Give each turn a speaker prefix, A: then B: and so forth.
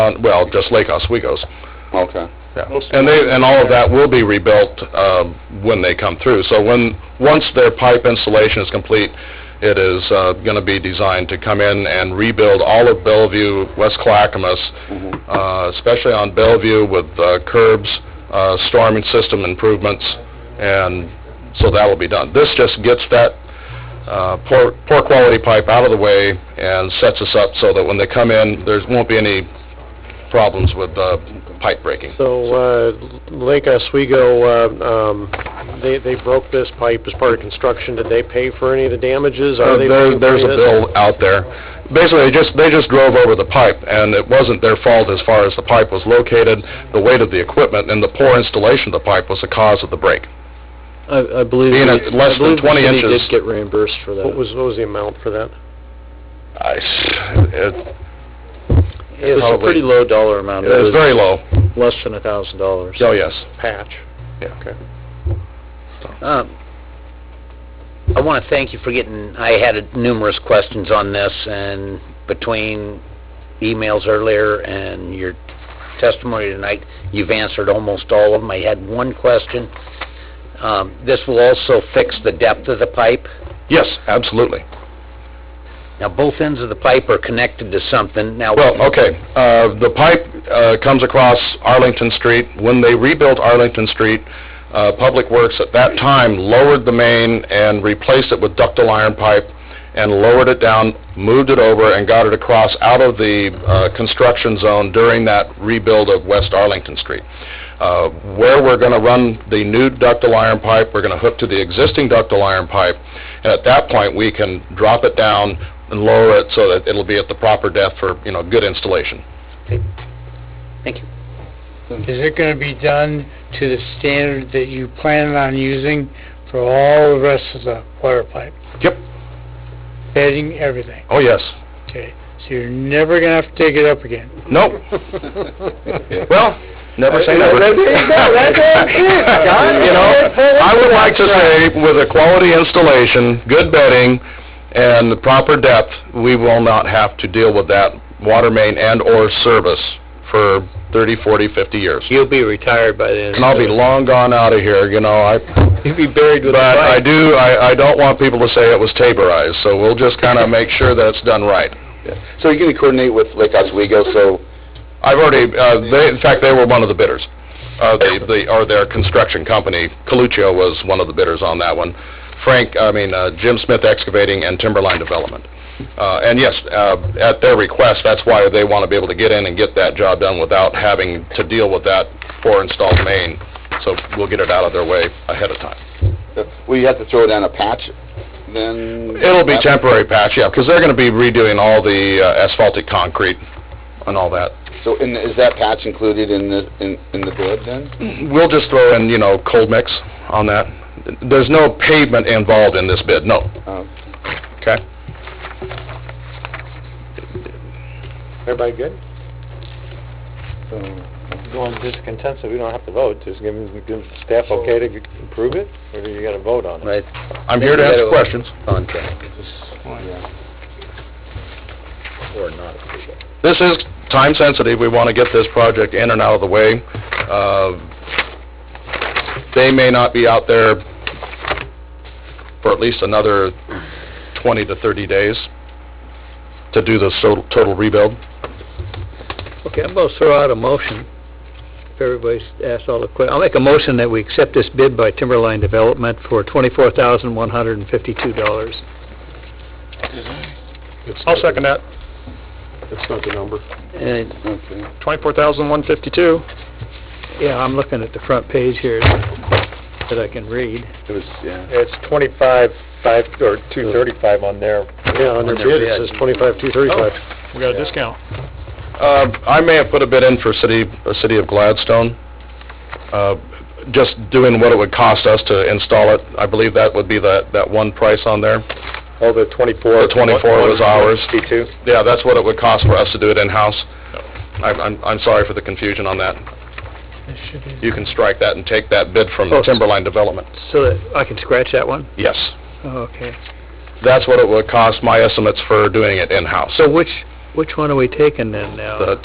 A: on, well, just Lake Oswego's.
B: Okay.
A: Yeah. And they, and all of that will be rebuilt um, when they come through. So when, once their pipe installation is complete, it is going to be designed to come in and rebuild all of Bellevue, West Clackamas, uh, especially on Bellevue with uh, curbs, uh, storm system improvements, and so that will be done. This just gets that uh, poor, poor quality pipe out of the way and sets us up so that when they come in, there won't be any problems with uh, pipe breaking.
C: So, uh, Lake Oswego, uh, um, they, they broke this pipe as part of construction. Did they pay for any of the damages? Are
A: Uh,
C: they
A: there-
C: paying for
A: There's a
C: this?
A: bill out there. Basically, they just, they just drove over the pipe, and it wasn't their fault as far as the pipe was located, the weight of the equipment, and the poor installation of the pipe was the cause of the break.
D: I, I believe.
A: Being
D: we-
A: at less
D: I
A: than
D: believe
A: 20
D: the city
A: inches.
D: did get reimbursed for that.
C: What was, what was the amount for that?
A: I s- It
D: It was a
A: Probably.
D: pretty low dollar amount.
A: it was very low.
D: Less than a thousand dollars.
A: Oh, yes.
C: Patch?
E: Um, I want to thank you for getting, I had numerous questions on this, and between emails earlier and your testimony tonight, you've answered almost all of them. I had one question. Um, This will also fix the depth of the pipe.
A: Yes, absolutely.
E: Now, both ends of the pipe are connected to something. Now,
A: Well, okay, uh, the pipe uh, comes across Arlington Street. When they rebuilt Arlington Street, uh, Public Works at that time lowered the main and replaced it with ductile iron pipe and lowered it down, moved it over, and got it across out of the uh, construction zone during that rebuild of West Arlington Street. Uh, Where we're going to run the new ductile iron pipe, we're going to hook to the existing ductile iron pipe, and at that point, we can drop it down and lower it so that it'll be at the proper depth for, you know, good installation.
E: Thank you.
F: Mm-hmm. Is it gonna be done to the standard that you plan on using for all the rest of the water pipe?
A: Yep.
F: Bedding, everything,
A: Oh, yes.
F: okay? So you're never gonna have to dig it up again.
A: Nope. Well, never say never.
C: There you go. That's it, John.
A: You know, I would like to say, with a quality installation, good bedding, and the proper depth, we will not have to deal with that water main and/or service for 30, 40, 50 years.
D: You'll be retired by then.
A: And I'll be long gone out of here, you know, I...
D: You'll be buried with a
A: But I
D: pipe.
A: do, I, I don't want people to say it was taborized, so we'll just kind of make sure that it's done right.
B: So you're going to coordinate with Lake Oswego, so
A: I've already, uh, they, in fact, they were one of the bidders. Uh, they, they, or their construction company, Coluccio was one of the bidders on that one. Frank, I mean, uh, Jim Smith Excavating and Timberline Development. Uh, and yes, uh, at their request, that's why they want to be able to get in and get that job done without having to deal with that poor installed main. So we'll get it out of their way ahead of time.
B: uh, will you have to throw down a patch then?
A: It'll be temporary patch, yeah, because they're going to be redoing all the uh, asphaltic concrete and all that.
B: So in- is that patch included in the, in in the bid then?
A: We'll just throw in, you know, cold mix on that. There's no pavement involved in this bid, no.
B: Oh.
A: Okay?
C: Everybody good?
D: Going discontent, so we don't have to vote, just give them, give staff okay to approve it, or you gotta vote on
E: Right,
A: I'm here to answer questions.
E: contract,
B: Yeah.
E: or not.
A: This is time sensitive, we want to get this project in and out of the way. Uh, They may not be out there for at least another 20 to 30 days to do the so- total rebuild.
D: Okay, I'm gonna throw out a motion, if everybody's asked all the que, I'll make a motion that we accept this bid by Timberline Development for twenty-four thousand one hundred and fifty-two dollars.
C: I'll second that. That's not the number.
D: And,
B: Okay.
C: Twenty-four thousand, one fifty-two.
D: yeah, I'm looking at the front page here that I can read.
B: It was, yeah.
G: It's twenty-five, five, or two thirty-five on there.
C: Yeah, on their bid, it says twenty-five, two thirty-five.
G: We got a discount.
A: Uh, I may have put a bid in for city, uh, city of Gladstone, uh, just doing what it would cost us to install it. I believe that would be that, that one price on there.
G: Oh, the twenty-four.
A: The 24 was ours.
G: Fifty-two.
A: Yeah, that's what it would cost for us to do it in-house. I'm, I'm, I'm sorry for the confusion on that.
F: This should be-
A: You can strike that and take that bid from
D: Oh.
A: Timberline Development.
D: So that, I can scratch that one?
A: Yes.
D: Oh, okay.
A: That's what it would cost, my estimates for doing it in-house.
D: So which, which one are we taking then now?
A: The